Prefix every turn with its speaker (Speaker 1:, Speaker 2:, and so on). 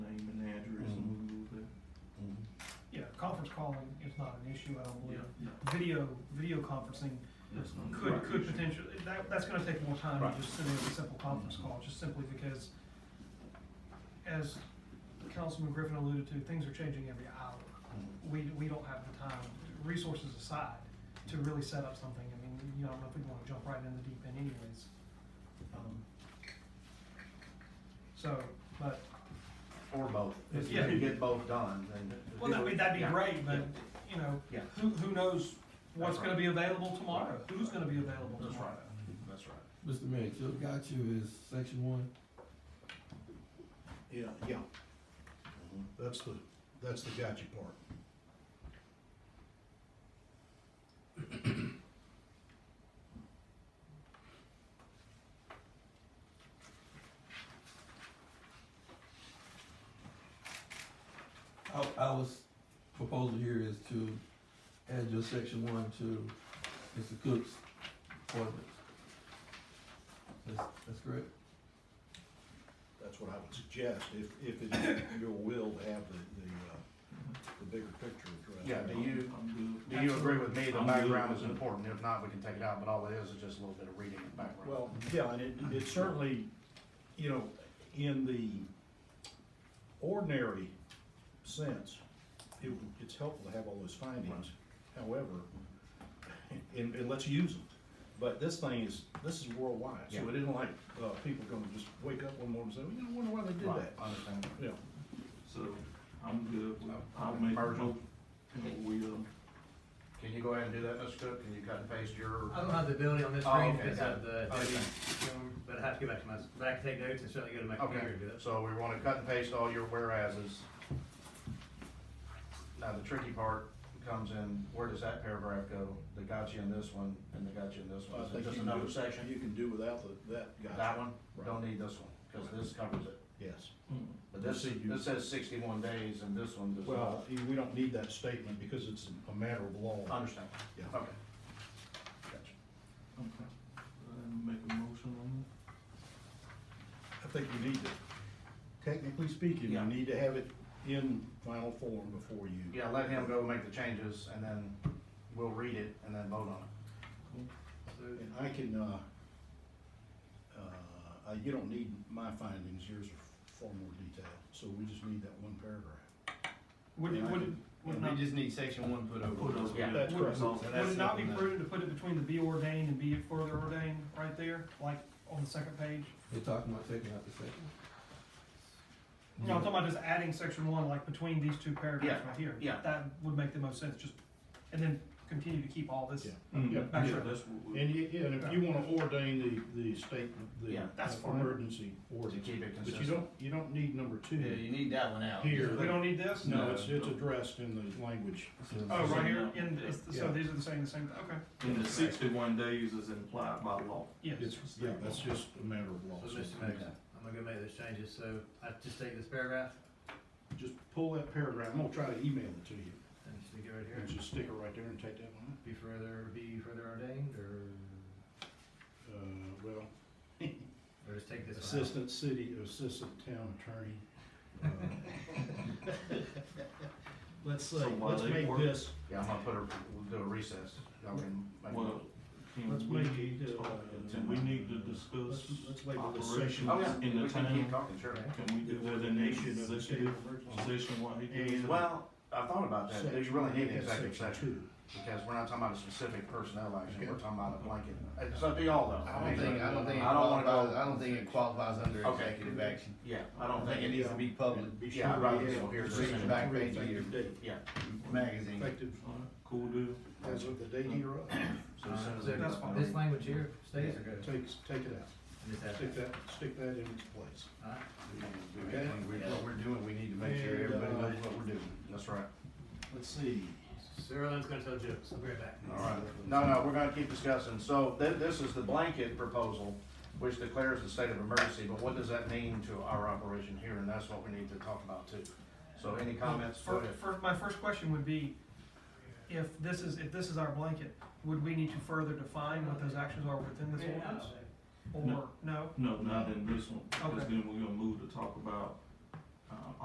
Speaker 1: Mm-hmm.
Speaker 2: conference calling is not an issue, I don't believe.
Speaker 3: Oh, Yeah.
Speaker 2: Video, video conferencing
Speaker 3: That's not-
Speaker 2: could,
Speaker 3: Right.
Speaker 2: could potentially, that, that's gonna take more time
Speaker 3: Right.
Speaker 2: than just sending a simple conference call, just simply because as Councilman Griffin alluded to, things are changing every hour. We, we don't have the time, resources aside, to really set up something. I mean, you know, I don't know if we wanna jump right in the deep end anyways. Um, So, but,
Speaker 1: Or both, if you
Speaker 2: Yeah.
Speaker 1: can get both done, then.
Speaker 2: well, that'd be, that'd be
Speaker 1: Yeah.
Speaker 2: great, but, you know,
Speaker 1: Yeah.
Speaker 2: who, who knows what's
Speaker 1: That's right.
Speaker 2: gonna be available tomorrow? Who's gonna be available
Speaker 3: That's
Speaker 2: tomorrow?
Speaker 3: That's right.
Speaker 4: Mr. Mayor, Joe got you is section one.
Speaker 5: Yeah, yeah.
Speaker 1: Mm-hmm.
Speaker 5: That's the, that's the gotcha part.
Speaker 4: Our, our s- proposal here is to add your section one to Mr. Cook's ordinance. That's, that's correct?
Speaker 5: That's what I would suggest, if, if it's your will to have the, the, uh, the bigger picture addressed.
Speaker 1: Yeah, do you,
Speaker 3: I'm
Speaker 1: do you agree with me that
Speaker 3: I'm good
Speaker 1: background
Speaker 3: with
Speaker 1: is
Speaker 3: it.
Speaker 1: important? If not, we can take it out, but all it is is just a little bit of reading and background.
Speaker 5: Well, yeah, and it, it certainly, you know, in the ordinary sense, it, would- it's helpful to have all those findings. However, and, and let's use them. But this thing is, this is worldwide, so it isn't like, uh, people gonna just wake up one morning and say, well, you know, I wonder why they did
Speaker 1: Right,
Speaker 5: that.
Speaker 1: I understand.
Speaker 5: Yeah,
Speaker 3: So, I'm good, with- I'll
Speaker 1: Okay.
Speaker 3: make a
Speaker 1: Virgil?
Speaker 3: motion. We, um,
Speaker 1: Can you go ahead and do that, Mr. Cook? Can you cut and paste your?
Speaker 6: I don't have the ability on this
Speaker 1: Oh,
Speaker 6: screen to
Speaker 1: okay,
Speaker 6: fix
Speaker 1: got
Speaker 6: up
Speaker 1: it.
Speaker 6: the
Speaker 1: Okay.
Speaker 6: deputy, um, but I have to go back to my, but I can take notes and certainly go to my
Speaker 1: Okay,
Speaker 6: computer and do it.
Speaker 1: so we wanna cut and paste all your whereases. Now, the tricky part comes in, where does that paragraph go? They got you in this one, and they got you in this one.
Speaker 5: I
Speaker 1: Is
Speaker 5: think
Speaker 1: it just
Speaker 5: you can do-
Speaker 1: another section?
Speaker 5: You can do without the, that, gotcha.
Speaker 1: That one?
Speaker 5: Right.
Speaker 1: Don't need this one, cause this covers it.
Speaker 5: Yes.
Speaker 3: hmm,
Speaker 1: But this, this says sixty-one days, and this one does not.
Speaker 5: Well, you- we don't need that statement because it's a matter of law.
Speaker 1: Understand. Oh.
Speaker 5: Yeah.
Speaker 1: Okay.
Speaker 3: okay, and make a motion on
Speaker 5: I think you need to, technically speaking, you
Speaker 1: Yeah.
Speaker 5: need to have it in final form before you.
Speaker 1: Yeah, let him go make the changes and then we'll read it and then vote on it.
Speaker 6: So,
Speaker 5: And I can, uh, uh, uh, you don't need my findings, yours are far more detailed, so we just need that one paragraph.
Speaker 2: Would,
Speaker 5: Yeah, I
Speaker 2: would,
Speaker 5: can-
Speaker 2: would not.
Speaker 7: just need section one put
Speaker 3: it. Put those-
Speaker 1: Yeah.
Speaker 5: That's
Speaker 3: put
Speaker 5: correct.
Speaker 3: those-
Speaker 2: Would it not be prudent to put it between the be ordained and be it further ordained, right there, like on the second page?
Speaker 4: They're talking about taking out the section.
Speaker 2: No, I'm talking about just adding section one, like between these two paragraphs
Speaker 1: Yeah,
Speaker 2: right here.
Speaker 1: yeah.
Speaker 2: That would make the most sense, just, and then continue to keep all this.
Speaker 5: Yeah.
Speaker 1: Mm.
Speaker 3: Yeah,
Speaker 2: Back to-
Speaker 3: that's what we.
Speaker 5: And you, yeah, and if you wanna ordain the, the statement, the
Speaker 1: Yeah,
Speaker 2: that's
Speaker 5: uh,
Speaker 2: fine.
Speaker 5: emergency
Speaker 1: To
Speaker 5: ordinance,
Speaker 1: keep it
Speaker 5: but you
Speaker 1: consistent.
Speaker 5: don't, you don't need number
Speaker 7: Yeah,
Speaker 5: two
Speaker 7: you need that one out.
Speaker 5: here.
Speaker 2: We don't need this?
Speaker 5: No, it's, it's addressed in the language.
Speaker 2: Oh, right here, and it's, the- so
Speaker 5: Yeah.
Speaker 2: these are the same, the same, okay,
Speaker 3: And the sixty-one days is implied by law.
Speaker 2: yes.
Speaker 5: It's, yeah, that's just a matter of law.
Speaker 6: so Mr. Mayor, I'm gonna go make those changes, so I just take this paragraph
Speaker 5: Just pull that paragraph, I'm gonna try to email it to you,
Speaker 6: and just stick it right
Speaker 5: and
Speaker 6: here.
Speaker 5: just stick it right there and take that one
Speaker 6: Be further, be further ordained or,
Speaker 5: out. Uh, well,
Speaker 6: or just take this one out.
Speaker 5: assistant city, assistant town attorney. uh, Let's say,
Speaker 3: So while
Speaker 5: let's
Speaker 3: they
Speaker 5: make
Speaker 3: work-
Speaker 5: this,
Speaker 1: Yeah, I'm gonna put a, we'll do a recess. Y'all can make-
Speaker 3: Well,
Speaker 5: Let's
Speaker 3: can we
Speaker 5: make it,
Speaker 3: talk-
Speaker 5: uh,
Speaker 3: can we need to
Speaker 5: let's,
Speaker 3: discuss
Speaker 5: let's label this section.
Speaker 1: Oh, yeah,
Speaker 3: operations in
Speaker 1: we
Speaker 3: the
Speaker 1: can keep
Speaker 3: town?
Speaker 1: talking, sure.
Speaker 6: Okay.
Speaker 3: Can we do that in the
Speaker 5: Nation of the state
Speaker 3: executive
Speaker 5: of emergency.
Speaker 3: session while he does
Speaker 5: And-
Speaker 3: that?
Speaker 1: Well, I thought about that. Do you really need an
Speaker 5: That's
Speaker 1: executive
Speaker 5: section
Speaker 1: session?
Speaker 5: two.
Speaker 1: Because we're not talking about a specific personnel action, we're
Speaker 5: Okay.
Speaker 1: talking about a blanket. It's up to y'all though.
Speaker 7: I don't think, I don't think it
Speaker 1: I don't wanna
Speaker 7: qualifies,
Speaker 1: go-
Speaker 7: I don't think it qualifies under
Speaker 1: Okay.
Speaker 7: executive action.
Speaker 1: Yeah, I
Speaker 7: I
Speaker 1: don't
Speaker 7: think it
Speaker 1: think,
Speaker 7: needs to be public
Speaker 5: And be
Speaker 1: Yeah,
Speaker 5: sure
Speaker 1: I'd
Speaker 5: we
Speaker 1: rather
Speaker 5: have
Speaker 1: so here's
Speaker 5: section
Speaker 7: the back
Speaker 5: three
Speaker 7: page of
Speaker 5: effective date.
Speaker 1: yeah.
Speaker 7: magazine.
Speaker 5: Effective
Speaker 3: All right, Cool deal.
Speaker 5: as of the date hereof,
Speaker 1: So as soon as
Speaker 6: Uh,
Speaker 1: they-
Speaker 2: that's fine.
Speaker 6: This language here stays or goes?
Speaker 5: take, take it out,
Speaker 6: And Just add
Speaker 5: stick
Speaker 6: that.
Speaker 5: that, stick that in its place.
Speaker 6: All right.
Speaker 5: Okay.
Speaker 1: When we- What we're doing, we need to make sure
Speaker 5: And,
Speaker 1: everybody
Speaker 5: uh,
Speaker 1: knows what we're doing. That's right.
Speaker 5: Let's see.
Speaker 6: Sarah Lynn's gonna tell jokes, I'll be right back.
Speaker 1: All right, no, no, we're gonna keep discussing, so thi- this is the blanket proposal, which declares the state of emergency, but what does that mean to our operation here, and that's what we need to talk about too. So any comments, go
Speaker 2: Fir-
Speaker 1: ahead.
Speaker 2: fir- my first question would be, if this is, if this is our blanket, would we need to further define what those actions are within this ordinance? Or,
Speaker 3: No.
Speaker 2: no?
Speaker 3: No, not in this one, because
Speaker 2: Okay.
Speaker 3: then we're gonna move to talk about, uh,